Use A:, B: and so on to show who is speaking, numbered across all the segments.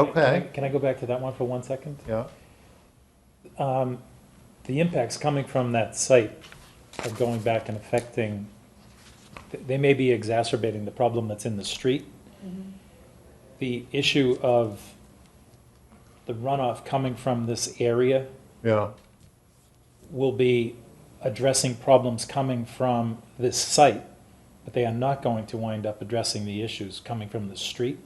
A: Okay,
B: Can I go back to that one for one second?
A: yeah,
B: Um, The impacts coming from that site are going back and affecting, th- they may be exacerbating the problem that's in the street. The issue of the runoff coming from this area
A: yeah,
B: will be addressing problems coming from this site, but they are not going to wind up addressing the issues coming from the street.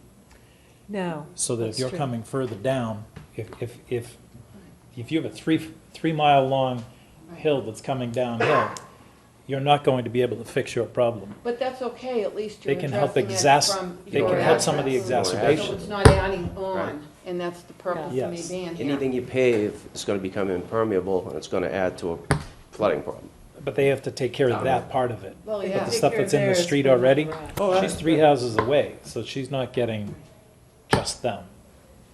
C: No.
B: So that if
C: That's
B: you're
C: true.
B: coming further down, if, if, if, if you have a three, three mile long hill that's coming downhill, you're not going to be able to fix your problem.
D: But that's okay, at least
B: They
D: you're
B: can help
D: addressing
B: exacerb-
D: it from
B: they
D: your
E: can help
B: some of the
D: address.
B: exacerbation.
D: So it's not adding
E: Right.
D: on, and that's the purpose
B: Yeah.
D: of me
B: Yes.
D: being here.
E: Anything you pave is going to become impermeable, and it's going to add to a flooding problem.
B: But they have to take care of that part of it.
D: Well,
B: But
D: yeah.
B: the stuff that's in the street already, she's three houses away, so she's not getting just them.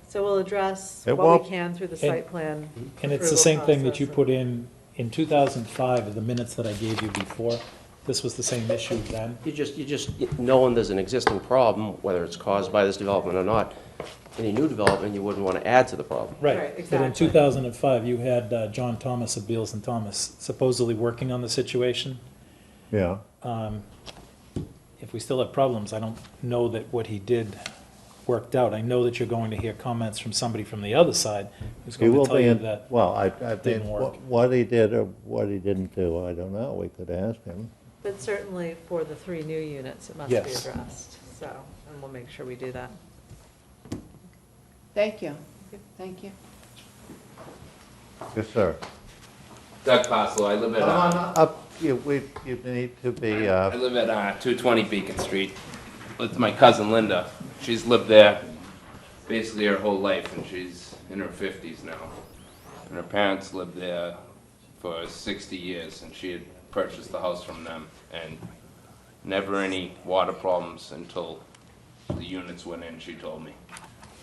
C: So we'll address
A: It
C: what
A: won't-
C: we can through the site plan.
B: And it's the
C: approval
B: same thing that
C: process
B: you
C: and-
B: put in, in two thousand five, of the minutes that I gave you before. This was the same issue then.
E: You just, you just, knowing there's an existing problem, whether it's caused by this development or not, any new development, you wouldn't want to add to the problem.
B: Right,
C: Right,
B: but in
C: exactly.
B: 2005, you had uh, John Thomas of Beals and Thomas supposedly working on the situation.
A: yeah.
B: If we still have problems, I don't know that what he did worked out. I know that you're going to hear comments from somebody from the other side who's
A: He
B: going
A: will
B: to tell
A: be
B: you
A: in,
B: that.
A: well, I, I mean,
B: didn't work.
A: wh- what he did or what he didn't do, I don't know, we could ask him.
C: But certainly for the three new units, it must be
B: Yes.
C: addressed, so, and we'll make sure we do that.
D: Thank you, thank you.
A: Yes, sir.
F: Doug Passlow, I live at,
A: Come on
F: uh,
A: up, you, we, you need to be,
F: I
A: uh,
F: live at, uh, two twenty Beacon Street with my cousin Linda. She's lived there basically her whole life and she's in her fifties now. And her parents lived there for sixty years and she had purchased the house from them and never any water problems until the units went in, she told me.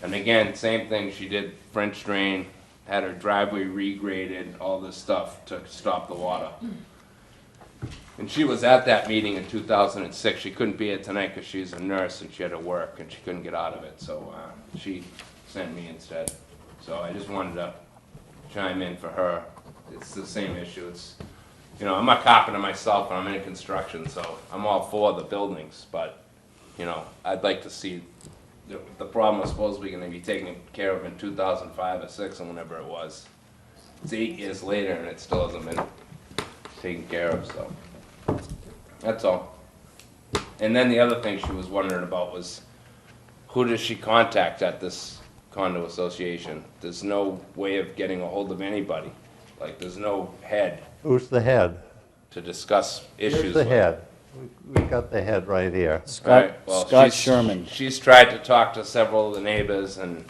F: And again, same thing, she did French drain, had her driveway regraded, all this stuff to stop the water. And she was at that meeting in 2006. She couldn't be here tonight because she's a nurse and she had to work and she couldn't get out of it. So uh, she sent me instead. So I just wanted to chime in for her. It's the same issue. It's, you know, I'm a carpenter myself and I'm in construction, so I'm all for the buildings. But, you know, I'd like to see the, the problem was supposed to be going to be taken care of in 2005 or 6 or whenever it was. It's eight years later and it still hasn't been taken care of, so. That's all. And then the other thing she was wondering about was, who does she contact at this condo association? There's no way of getting a hold of anybody. Like, there's no head
A: who's the head?
F: to discuss issues
A: Here's the
F: with.
A: head. We- We got the head right here.
G: Scott,
F: Right, well,
G: Scott
F: she's-
G: Sherman.
F: She's tried to talk to several of the neighbors and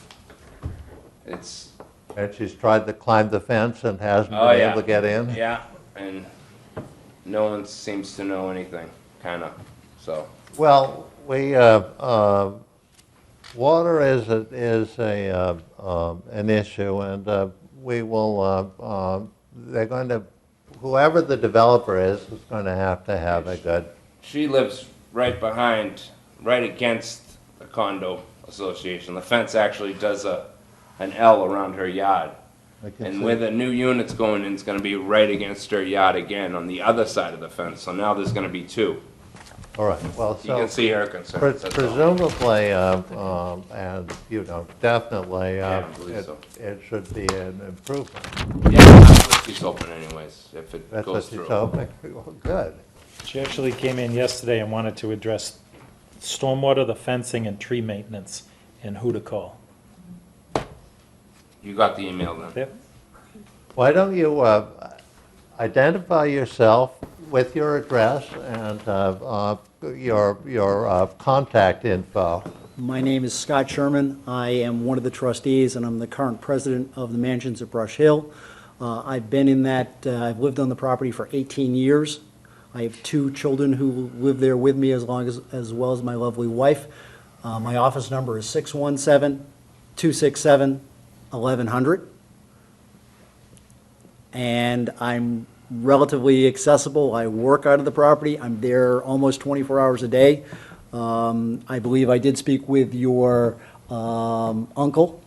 F: it's,
A: And she's tried to climb the fence and hasn't
F: Oh,
A: been
F: yeah.
A: able to get in?
F: yeah, and no one seems to know anything, kinda, so.
A: Well, we, uh, uh, water is, a- is a, uh, um, an issue, and uh, we will, uh, um, they're going to, whoever the developer is, is going to have to have a good,
F: She lives right behind, right against the condo association. The fence actually does a, an L around her yard.
A: I can
F: And
A: see-
F: where the new unit's going in, it's gonna be right against her yard again on the other side of the fence. So now there's gonna be two.
A: all right, well,
F: You can
A: so
F: see her
A: pre-
F: concerns, that's all.
A: presumably, uh, um, and, you know, definitely, uh,
F: Yeah, I believe
A: it-
F: so.
A: it should be an improvement.
F: Yeah, that's what she's hoping anyways, if it
A: That's what
F: goes
A: she's
F: through.
A: hoping, well, good.
B: She actually came in yesterday and wanted to address stormwater, the fencing, and tree maintenance, and who to call.
F: You got the email then?
B: Yep.
A: Why don't you uh, identify yourself with your address and uh, uh, your, your uh, contact info?
H: My name is Scott Sherman. I am one of the trustees, and I'm the current president of the Mansions at Brush Hill. Uh, I've been in that, uh, I've lived on the property for 18 years. I have two children who live there with me as long as, as well as my lovely wife. Uh, My office number is 617-267-1100. And I'm relatively accessible. I work out of the property. I'm there almost 24 hours a day. Um, I believe I did speak with your um, uncle